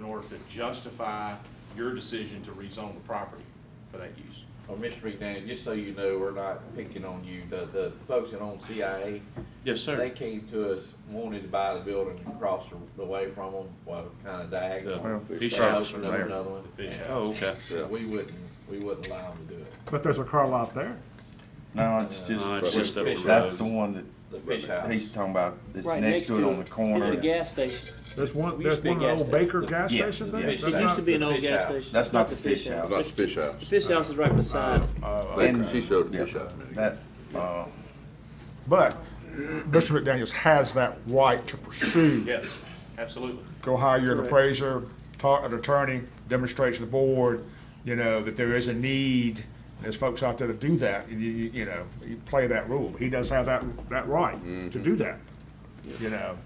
hours that justify your decision to rezone the property for that use. Well, Mr. McDaniel, just so you know, we're not picking on you, the, the folks that own CIA. Yes, They came to us, wanted to buy the building across the- the way from them, well, kind of diagonal. The fish They house opened are up there. Another one. The fish and house. Oh, okay. so We wouldn't, we wouldn't allow them to do it. But there's a car lot there. No, it's just, No, it's Uh, just up the that's road. the one The fish that house. he's talking about, it's Right next to it on the It's a corner. gas station. There's one, We there's used to be one a an gas old station. Baker gas Yeah, station yeah. there? It That's It not- used to be an old fish gas house. station. That's not the fish house. Not the fish house. The fish house is right beside it. And- She showed the yeah, fish house. many That, uh, But Mr. McDaniels has that right to pursue, Yes, absolutely. go hire an Correct. appraiser, talk an attorney, demonstrate to the board, you know, that there is a need. There's folks out there that do that, and you, you you know, you play that rule. He does have that, that right to Mm-hmm. do that, you know.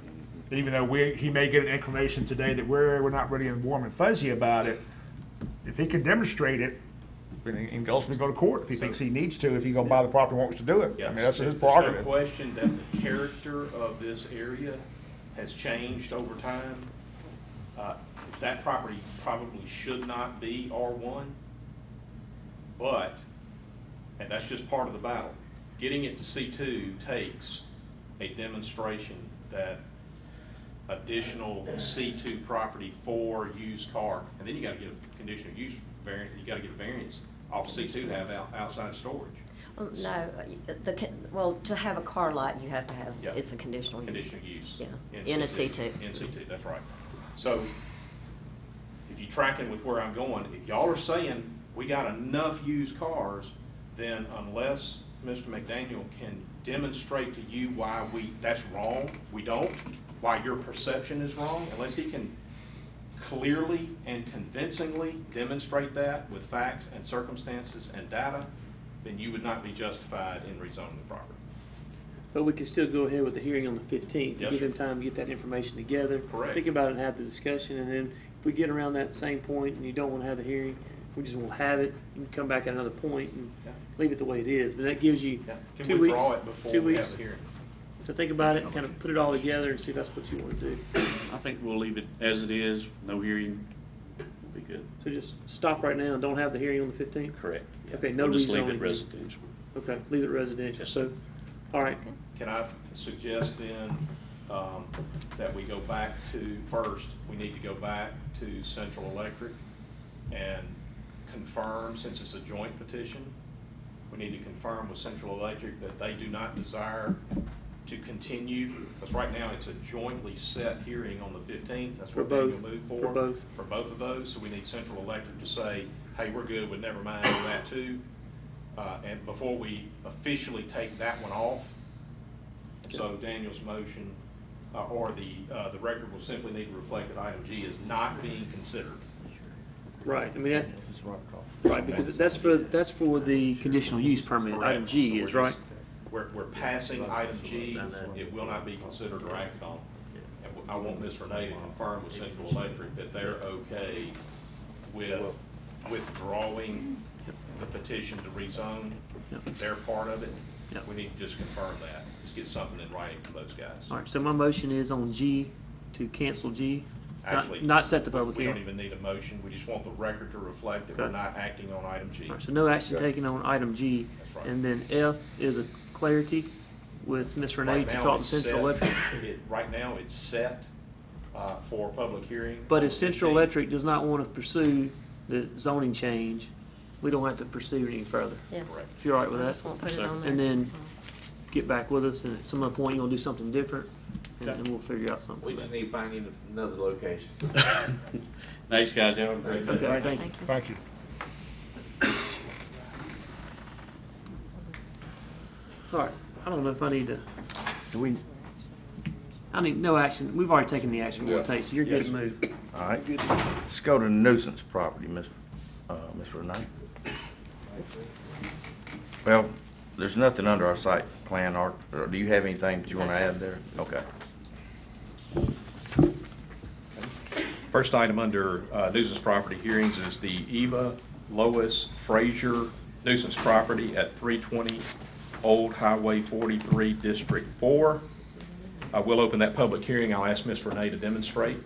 Even though we, he may get an inclination today that we're, we're not really warm and fuzzy about it, if he can demonstrate it, then he can ultimately go to court if he thinks he needs to, if he gonna buy the property and wants to do it. I Yes. mean, that's his There's prerogative. No question that the character of this area has changed over time. Uh, That property probably should not be R1, but, and that's just part of the battle, getting it to C2 takes a demonstration that additional C2 property for used car, and then you gotta get a conditional use variant, you gotta get a variance off C2 to have out- outside storage. Well, No, uh, the, con- well, to have a car lot, you have to have, Yeah. it's a conditional use. conditional use. Yeah, in a C2. In C2, that's right. So if you're tracking with where I'm going, if y'all are saying we got enough used cars, then unless Mr. McDaniel can demonstrate to you why we, that's wrong, we don't, why your perception is wrong, unless he can clearly and convincingly demonstrate that with facts and circumstances and data, then you would not be justified in rezoning the property. But we could still go ahead with the hearing on the fifteenth, to Yes, give sir. them time to get that information together. Correct. Think about it and have the discussion, and then if we get around that same point and you don't wanna have the hearing, we just won't have it, and come back at another point and Yeah. leave it the way it is, but that gives you Can two we weeks, draw it before two we have weeks the hearing? to think about it, and kind of put it all together and see if that's what you wanna do. I think we'll leave it as it is, no hearing, we'll be good. So just stop right now and don't have the hearing on the fifteenth? Correct. yeah. Okay, no We'll just leave rezoning. it residential. Okay, leave it residential, so, all right, Okay. Can I suggest then um, that we go back to, first, we need to go back to Central Electric and confirm, since it's a joint petition, we need to confirm with Central Electric that they do not desire to continue, because right now it's a jointly set hearing on the 15th. That's For what Daniel both, moved for for. both. For both of those, so we need Central Electric to say, hey, we're good, but never mind on that too. Uh, And before we officially take that one off, so Daniel's motion, uh, or the, uh, the record will simply need to reflect that item G is not being considered. right, I mean, that, It's right across. right, because that's for, that's for the conditional use permit, item G is, right? We're, we're passing item G, it will not be considered or acted on. And I want Ms. Renee to confirm with Central Electric that they're okay with withdrawing the petition to rezone, their part of it. Yeah. We need to just confirm that, just get something in writing from those guys. All right, so my motion is on G to cancel G, Actually, not, not set the public We don't hearing. even need a motion, we just want the record to reflect that we're Okay. not acting on item G. All right, so no action taken on item G. That's right. And then F is a clarity with Ms. Renee Right to now, talk to it's Central set- Electric. it- Right now, it's set uh, for public hearing. But if on 15. Central Electric does not want to pursue the zoning change, we don't have to pursue it any further. Yeah. Correct. If you're all right I with just that, won't put it Sure. on there. Oh, and then get back with us, and at some other point, you're gonna do something different, and Okay. and we'll figure out something. We just need to find another location. Thanks, guys, have a great day. Okay, thank you. Thank you. Thank you. All right, I don't know if I need to, do we, I need, no action, we've already taken the action we're Yeah. gonna take, so you're good to Yes. move. all right, let's go to nuisance property, Miss, uh, Miss Renee. Well, there's nothing under our site plan, or, or do you have anything that you wanna add there? Okay. First item under uh, nuisance property hearings is the Eva Lois Frazier nuisance property at 320 Old Highway 43, District 4. I will open that public hearing. I'll ask Ms. Renee to demonstrate.